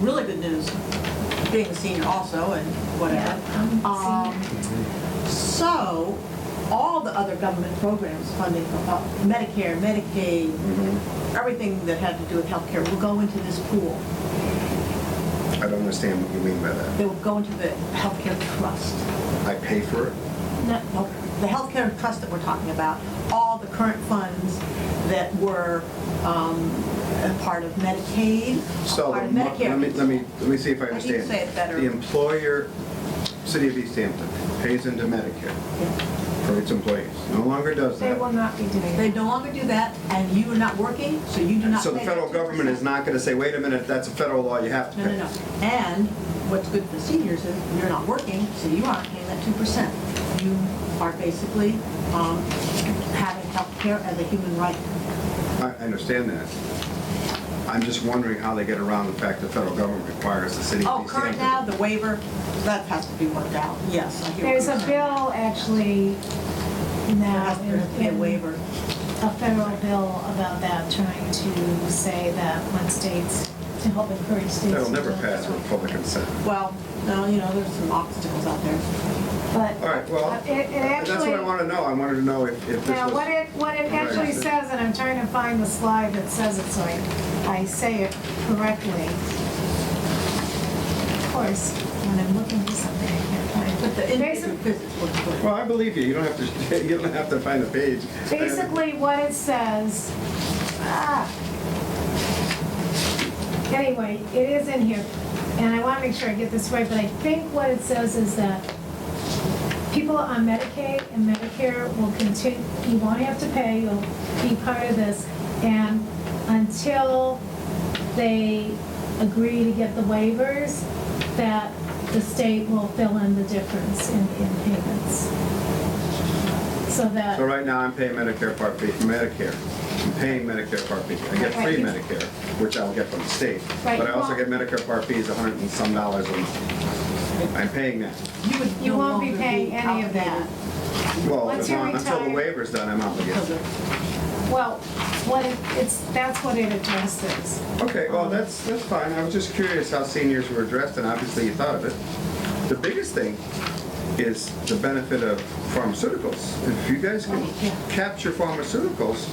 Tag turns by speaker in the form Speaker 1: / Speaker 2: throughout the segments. Speaker 1: really good news, being a senior also and whatever. Um, So, all the other government programs funding, uh, Medicare, Medicaid,
Speaker 2: Mm-hmm.
Speaker 1: everything that had to do with healthcare will go into this pool.
Speaker 2: I don't understand what you mean by that.
Speaker 1: They will go into the healthcare trust.
Speaker 2: I pay for it?
Speaker 1: Not- no, The healthcare trust that we're talking about, all the current funds that were um, a part of Medicaid, a
Speaker 2: So,
Speaker 1: part of
Speaker 2: the mo- let me, let
Speaker 1: Medicare.
Speaker 2: me, let me see if
Speaker 1: I
Speaker 2: I
Speaker 1: need
Speaker 2: understand.
Speaker 1: to say it better.
Speaker 2: The employer, City of East Hampton, pays into Medicare for its employees, no longer does
Speaker 3: They
Speaker 2: that.
Speaker 3: will not be doing
Speaker 1: They
Speaker 3: it.
Speaker 1: no longer do that, and you are not working, so you do not
Speaker 2: So the
Speaker 1: pay that
Speaker 2: federal government
Speaker 1: 2%.
Speaker 2: is not gonna say, wait a minute, that's a federal law, you have to
Speaker 1: No,
Speaker 2: pay.
Speaker 1: no, no. And what's good for seniors is you're not working, so you aren't paying that two percent. You are basically um, having health care as a human right.
Speaker 2: I I understand that. I'm just wondering how they get around the fact the federal government requires the city of
Speaker 1: Oh,
Speaker 2: East
Speaker 1: current
Speaker 2: Hampton.
Speaker 1: now, the waiver, that has to be worked out. Yes, I hear what
Speaker 3: There's
Speaker 1: you're
Speaker 3: a
Speaker 1: saying.
Speaker 3: bill actually
Speaker 1: There
Speaker 3: now
Speaker 1: has there has to be a
Speaker 3: in-
Speaker 1: waiver.
Speaker 3: a federal bill about that, trying to say that when states, to help encourage states.
Speaker 2: That'll
Speaker 3: to
Speaker 2: never
Speaker 3: do it.
Speaker 2: pass with public consent.
Speaker 1: Well, no, you know, there's some obstacles out there.
Speaker 3: But.
Speaker 2: All right,
Speaker 1: Uh,
Speaker 2: well,
Speaker 3: It, it
Speaker 2: that's
Speaker 3: actually.
Speaker 2: what I wanna know. I wanted to know if if this
Speaker 3: Now, what it,
Speaker 2: was,
Speaker 3: what it actually says, and I'm trying to find the slide that says it, so I, I say it correctly. Of course, when I'm looking for something, I can't find it.
Speaker 1: But the individual
Speaker 3: Basic-
Speaker 1: visits were good.
Speaker 2: well, I believe you. You don't have to, you don't have to find the page.
Speaker 3: Basically, what it says, ah. Anyway, it is in here, and I want to make sure I get this right, but I think what it says is that people on Medicaid and Medicare will continue, you won't have to pay, you'll be part of this, and until they agree to get the waivers, that the state will fill in the difference in, in payments. So that.
Speaker 2: So right now, I'm paying Medicare Part B, Medicare. I'm paying Medicare Part B. I get free
Speaker 3: Right.
Speaker 2: Medicare, which I'll get from the state.
Speaker 3: Right.
Speaker 2: But I also
Speaker 3: Well-
Speaker 2: get Medicare Part B is a hundred and some dollars a month. I'm paying that.
Speaker 1: You would
Speaker 3: You
Speaker 1: no
Speaker 3: won't be
Speaker 1: longer
Speaker 3: paying any of that.
Speaker 1: obligated
Speaker 2: Well,
Speaker 3: Once
Speaker 2: as
Speaker 3: you
Speaker 2: long- until the
Speaker 3: retire-
Speaker 2: waiver's done, I'm obligated.
Speaker 1: because of-
Speaker 3: Well, what it, it's, that's what it addresses.
Speaker 2: Okay, well, that's, that's fine. I was just curious how seniors were addressed, and obviously you thought of it. The biggest thing is the benefit of pharmaceuticals. If you guys can
Speaker 3: Oh,
Speaker 1: Yeah.
Speaker 2: capture pharmaceuticals,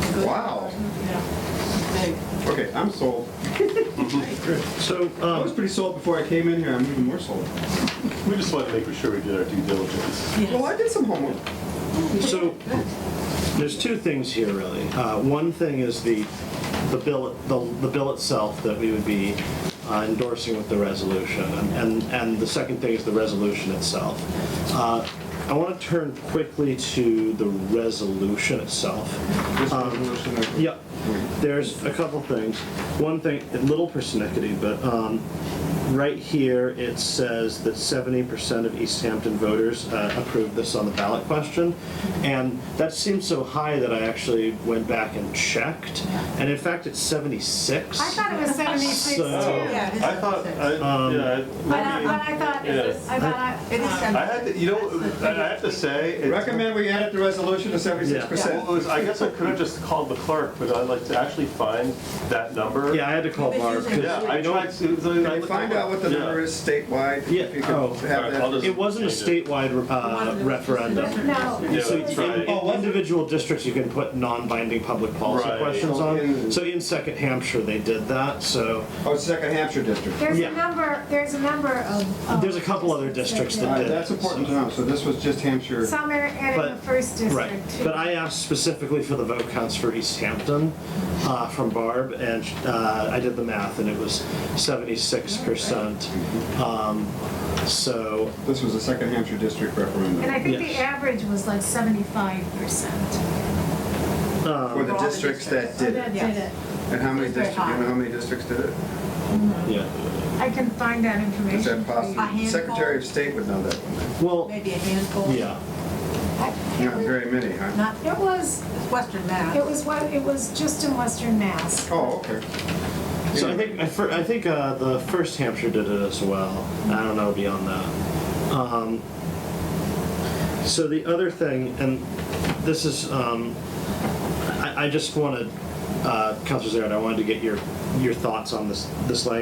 Speaker 1: because-
Speaker 2: Wow.
Speaker 1: Yeah. Big.
Speaker 2: okay, I'm sold.
Speaker 4: So,
Speaker 2: I was
Speaker 4: um,
Speaker 2: pretty sold before I came in here, I'm even more sold.
Speaker 4: we just wanted to make sure we did our due diligence.
Speaker 1: Yes.
Speaker 2: Well, I did some homework.
Speaker 4: So, there's two things here, really. Uh, one thing is the, the bill, the, the bill itself that we would be uh, endorsing with the resolution, and, and, and the second thing is the resolution itself. Uh, I want to turn quickly to the resolution itself.
Speaker 2: This resolution of-
Speaker 4: Yep. There's a couple things. One thing, a little persnickety, but um, right here it says that 70% of East Hampton voters uh, approved this on the ballot question. And that seems so high that I actually went back and checked. And in fact, it's 76.
Speaker 3: I thought it was seventy-six too.
Speaker 4: So-
Speaker 3: But
Speaker 1: Yeah, it is
Speaker 5: I thought, I,
Speaker 4: Um,
Speaker 5: yeah, I-
Speaker 3: I, but I thought,
Speaker 5: Yes.
Speaker 3: I thought, um,
Speaker 1: It is
Speaker 3: I-
Speaker 5: I had to, you know, I I have to say. it's-
Speaker 2: Recommend we edit the resolution to seventy-six
Speaker 5: Well, it
Speaker 2: percent.
Speaker 5: was- I guess I could have just called the clerk, but I'd like to actually find that number.
Speaker 4: Yeah, I had to call
Speaker 1: Maybe
Speaker 4: Barb.
Speaker 1: it's
Speaker 4: 'cause
Speaker 5: Yeah, I
Speaker 4: don't-
Speaker 5: tried to.
Speaker 2: Can you find out what the number is statewide?
Speaker 4: Yeah.
Speaker 2: If you could
Speaker 4: Oh.
Speaker 2: have
Speaker 5: All right, I'll
Speaker 2: that.
Speaker 5: just-
Speaker 4: It wasn't a statewide
Speaker 1: One
Speaker 4: uh,
Speaker 1: of the-
Speaker 4: referendum.
Speaker 3: No.
Speaker 5: Yeah,
Speaker 4: So
Speaker 5: that's
Speaker 4: in,
Speaker 5: right.
Speaker 4: in individual districts, you can put non-binding public policy
Speaker 5: Right.
Speaker 4: questions
Speaker 2: Mm.
Speaker 4: on. So in Second Hampshire, they did that. So
Speaker 2: Oh, it's Second Hampshire District.
Speaker 3: there's
Speaker 4: Yeah.
Speaker 3: a number, there's a number of. of
Speaker 4: There's a couple other districts that
Speaker 2: All right,
Speaker 4: did.
Speaker 2: that's important to know, so this was just Hampshire.
Speaker 3: Some are added in the
Speaker 4: But-
Speaker 3: first
Speaker 4: right,
Speaker 3: district too.
Speaker 4: but I asked specifically for the vote counts for East Hampton uh, from Barb, and uh, I did the math, and it was 76 percent. Um, so
Speaker 2: This was the second Hampshire district
Speaker 3: And I
Speaker 2: referendum.
Speaker 3: think the
Speaker 4: Yes.
Speaker 3: average was like seventy-five percent.
Speaker 2: For the districts that did
Speaker 3: That
Speaker 2: it.
Speaker 3: did it.
Speaker 2: And how many
Speaker 1: It's very
Speaker 2: districts, do you
Speaker 1: high.
Speaker 2: know how many districts did it?
Speaker 4: yeah,
Speaker 3: I can find that information.
Speaker 2: Is
Speaker 3: for
Speaker 2: that
Speaker 3: you.
Speaker 1: A
Speaker 2: possible?
Speaker 1: handful.
Speaker 2: Secretary of State would know that one.
Speaker 4: well,
Speaker 1: Maybe a handful.
Speaker 4: yeah.
Speaker 2: Not very many, huh?
Speaker 1: Not,
Speaker 3: It was,
Speaker 1: it's Western Mass.
Speaker 3: it was what, it was just in Western Mass.
Speaker 2: Oh, okay.
Speaker 4: So I think I, fir- I think uh, the first Hampshire did it as well. I don't know beyond that. Um, so the other thing, and this is, um, I, I just wanted, uh, Councilor Zarin, I wanted to get your your thoughts on this this language.